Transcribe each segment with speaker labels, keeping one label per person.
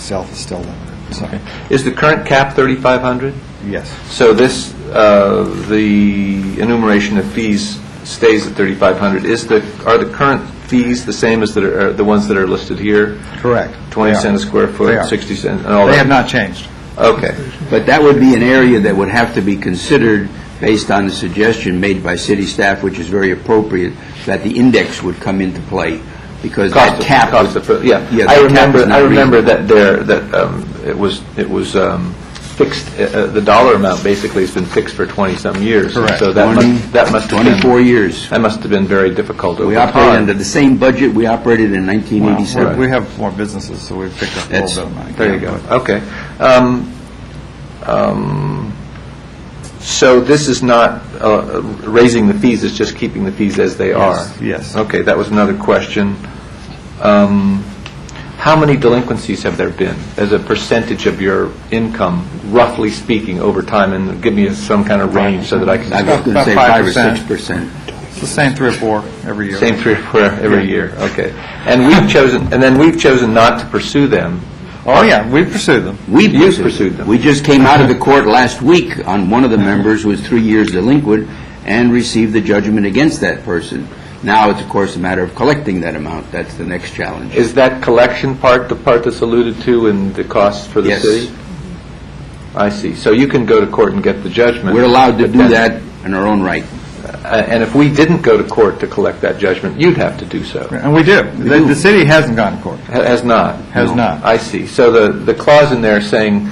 Speaker 1: itself is still limited, so,
Speaker 2: Is the current cap 3,500?
Speaker 1: yes.
Speaker 2: So this, uh, the enumeration of fees stays at 3,500. Is the, are the current fees the same as that are, are the ones that are listed here?
Speaker 1: Correct.
Speaker 2: 20
Speaker 1: They are.
Speaker 2: cent a square
Speaker 1: They are.
Speaker 2: foot, 60 cent, and all that?
Speaker 1: They have not changed.
Speaker 2: Okay.
Speaker 3: But that would be an area that would have to be considered based on the suggestion made by city staff, which is very appropriate, that the index would come into play, because that
Speaker 2: Cost
Speaker 3: cap...
Speaker 2: of, cost of, food, yeah.
Speaker 3: Yeah,
Speaker 2: I
Speaker 3: that cap
Speaker 2: remember,
Speaker 3: is not
Speaker 2: I remember
Speaker 3: reasonable.
Speaker 2: that there, that um, it was, it was um, fixed, uh, uh, the dollar amount basically has been fixed for 20-some years. And
Speaker 1: Correct.
Speaker 2: So that must, that must have been...
Speaker 3: 24 years.
Speaker 2: That must have been very difficult over
Speaker 3: We
Speaker 2: time.
Speaker 3: operated under the same budget we operated in
Speaker 1: Well,
Speaker 3: 1987.
Speaker 1: We we have more businesses, so we've picked up a
Speaker 3: That's-
Speaker 1: little bit of money.
Speaker 2: There you
Speaker 1: Yeah,
Speaker 2: go,
Speaker 1: but-
Speaker 2: okay. Um, um, So this is not uh, raising the fees, it's just keeping the fees as they are?
Speaker 1: Yes, yes.
Speaker 2: Okay, that was another question. Um, How many delinquencies have there been as a percentage of your income, roughly speaking, over time? And give me some kind of range so that I
Speaker 3: I
Speaker 2: can,
Speaker 3: was going to
Speaker 1: About
Speaker 3: say 5 or
Speaker 1: 5%.
Speaker 3: 6 percent.
Speaker 1: It's the same three or four every year.
Speaker 2: same three or four every year, okay. And we've chosen, and then we've chosen not to pursue them.
Speaker 1: Oh, yeah, we pursue them.
Speaker 3: We
Speaker 2: You've
Speaker 3: pursued.
Speaker 2: pursued them.
Speaker 3: We just came out of the court last week on one of the members who was three years delinquent and received the judgment against that person. Now, it's of course a matter of collecting that amount. That's the next challenge.
Speaker 2: Is that collection part the part that's alluded to in the costs for the
Speaker 3: Yes.
Speaker 2: city? I see. So you can go to court and get the judgment.
Speaker 3: We're allowed to
Speaker 2: but
Speaker 3: do that
Speaker 2: then-
Speaker 3: in our own right.
Speaker 2: Uh, And if we didn't go to court to collect that judgment, you'd have to do so.
Speaker 1: And we do. The the city hasn't gone to court.
Speaker 2: Ha- Has not?
Speaker 1: Has No. not.
Speaker 2: I see. So the, the clause in there saying,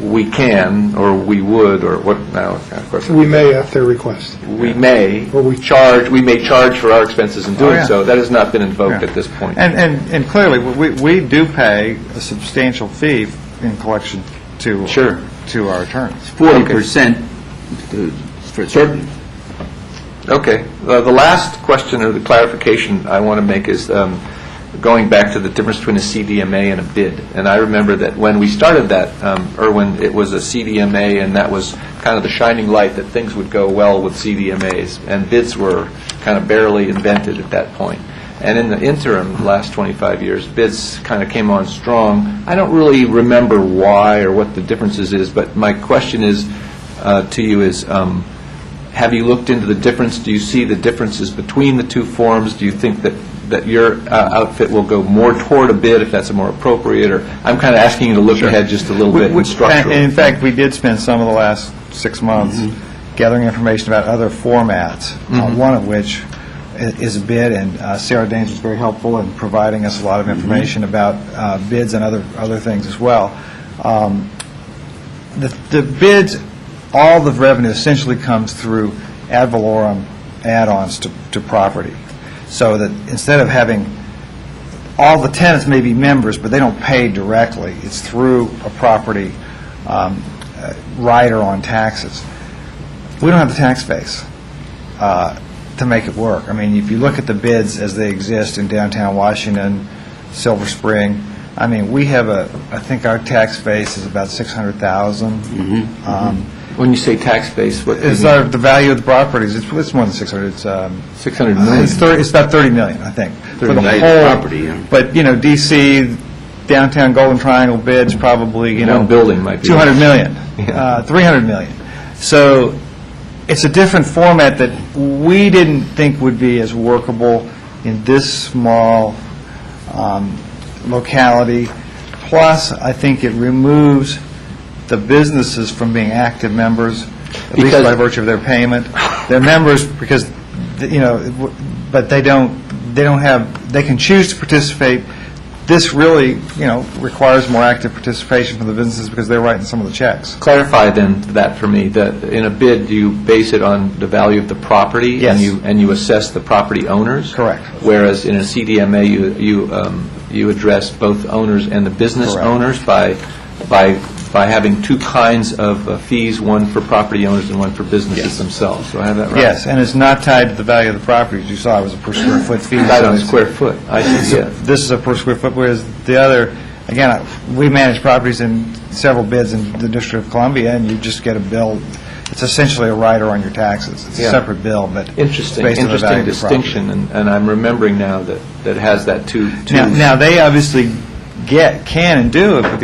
Speaker 2: we can, or we would, or what, no, of course,
Speaker 4: We may at their request.
Speaker 2: we may
Speaker 4: Or we-
Speaker 2: charge, we may charge for our expenses in doing
Speaker 1: yeah.
Speaker 2: so. That has not been invoked
Speaker 1: Yeah.
Speaker 2: at this point.
Speaker 1: And, and, and clearly, we, we do pay a substantial fee in collection to.
Speaker 2: Sure.
Speaker 1: To our attorneys.
Speaker 3: Forty percent for certain.
Speaker 2: Okay. Uh, The last question or the clarification I want to make is um, going back to the difference between a CDMA and a bid. And I remember that when we started that, um, Erwin, it was a CDMA, and that was kind of the shining light that things would go well with CDMAs, and bids were kind of barely invented at that point. And in the interim, the last 25 years, bids kind of came on strong. I don't really remember why or what the differences is, but my question is, uh, to you is, um, have you looked into the difference? Do you see the differences between the two forms? Do you think that, that your uh, outfit will go more toward a bid if that's a more appropriate, or, I'm kind of asking you to look ahead just a little
Speaker 1: We-
Speaker 2: bit
Speaker 1: we-
Speaker 2: and structural.
Speaker 1: And in fact, we did spend some of the last six months
Speaker 2: Mm-hmm.
Speaker 1: gathering information about other formats, uh, one of which i- is a bid, and uh, Sarah Danes was very helpful in providing us a lot of
Speaker 2: Mm-hmm.
Speaker 1: information about uh, bids and other, other things as well. Um, The the bids, all the revenue essentially comes through ad valorem add-ons to to property, so that instead of having all the tenants may be members, but they don't pay directly. It's through a property um, uh, rider on taxes. We don't have the tax base uh, to make it work. I mean, if you look at the bids as they exist in downtown Washington, Silver Spring, I mean, we have a, I think our tax base is about 600,000. Um,
Speaker 2: When you say tax base, what, do you
Speaker 1: Is
Speaker 2: mean?
Speaker 1: our, the value of the properties, it's it's more than 600, it's um,
Speaker 2: 600 million?
Speaker 1: it's 30, it's about 30 million, I think, for
Speaker 2: 30
Speaker 1: the
Speaker 2: million
Speaker 1: whole.
Speaker 3: property, yeah.
Speaker 1: But, you know, DC, downtown Golden Triangle bids probably, you know.
Speaker 2: One building might be-
Speaker 1: 200 million,
Speaker 2: Yeah.
Speaker 1: uh, 300 million. So it's a different format that we didn't think would be as workable in this small um, locality. Plus, I think it removes the businesses from being active members, at least
Speaker 2: Because-
Speaker 1: by virtue of their payment. They're members because, you know, it w- but they don't, they don't have, they can choose to participate. This really, you know, requires more active participation from the businesses because they're writing some of the checks.
Speaker 2: Clarify then that for me, that in a bid, you base it on the value of the property?
Speaker 1: Yes.
Speaker 2: And you, and you assess the property owners?
Speaker 1: Correct.
Speaker 2: Whereas in a CDMA, you, you, um, you address both owners and the business
Speaker 1: Correct.
Speaker 2: owners by, by, by having two kinds of uh, fees, one for property owners and one for businesses themselves. Do I have that right?
Speaker 1: Yes, and it's not tied to the value of the properties. You saw it was a per square foot fee.
Speaker 2: Tied
Speaker 1: so
Speaker 2: on
Speaker 1: it's-
Speaker 2: square foot, I see, yeah.
Speaker 1: This is a per square foot, whereas the other, again, I- we manage properties in several bids in the District of Columbia, and you just get a bill. It's essentially a rider on your taxes. It's a
Speaker 2: Yeah.
Speaker 1: separate bill, but it's
Speaker 2: Interesting,
Speaker 1: based on the value
Speaker 2: interesting
Speaker 1: of the property.
Speaker 2: distinction, and and I'm remembering now that, that it has that two, two
Speaker 1: Now, now, they obviously get, can and do, but